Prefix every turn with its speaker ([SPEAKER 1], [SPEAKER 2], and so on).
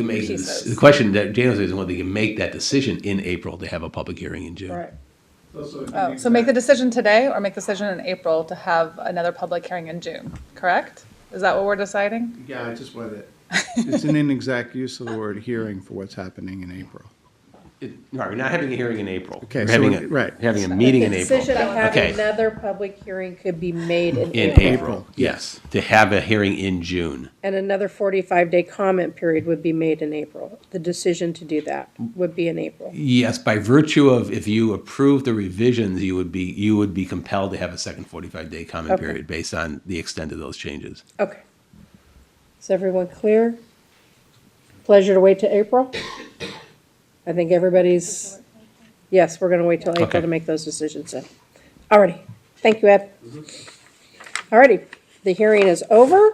[SPEAKER 1] to make
[SPEAKER 2] She
[SPEAKER 1] the-
[SPEAKER 2] says.
[SPEAKER 1] The question that Janice is whether they can make that decision in April to have a public hearing in June.
[SPEAKER 2] Right.
[SPEAKER 3] So if you
[SPEAKER 2] Oh,
[SPEAKER 3] need
[SPEAKER 2] so make the
[SPEAKER 3] that-
[SPEAKER 2] decision today or make the decision in April to have another public hearing in June, correct? Is that what we're deciding?
[SPEAKER 3] Yeah, I just wanted, it's an inexact use of the word hearing for what's happening in April.
[SPEAKER 1] It- Right, we're not having a hearing in April.
[SPEAKER 3] Okay,
[SPEAKER 1] We're
[SPEAKER 3] so
[SPEAKER 1] having
[SPEAKER 3] it-
[SPEAKER 1] a-
[SPEAKER 3] right.
[SPEAKER 1] Having a meeting in
[SPEAKER 4] The
[SPEAKER 1] April.
[SPEAKER 4] Decision of
[SPEAKER 1] Okay.
[SPEAKER 4] having another public hearing could be made in
[SPEAKER 1] In
[SPEAKER 4] April.
[SPEAKER 1] April, yes, to have a hearing in June.
[SPEAKER 4] And another forty-five day comment period would be made in April. The decision to do that would be in April.
[SPEAKER 1] Yes, by virtue of if you approve the revisions, you would be, you would be compelled to have a second forty-five day comment
[SPEAKER 4] Okay.
[SPEAKER 1] period based on the extent of those changes.
[SPEAKER 4] Okay. Is everyone clear? Pleasure to wait to April? I think everybody's, yes, we're gonna wait till
[SPEAKER 1] Okay.
[SPEAKER 4] April to make those decisions then.
[SPEAKER 1] Mm-hmm.
[SPEAKER 4] Alrighty, thank you, Ed. Alrighty, the hearing is over.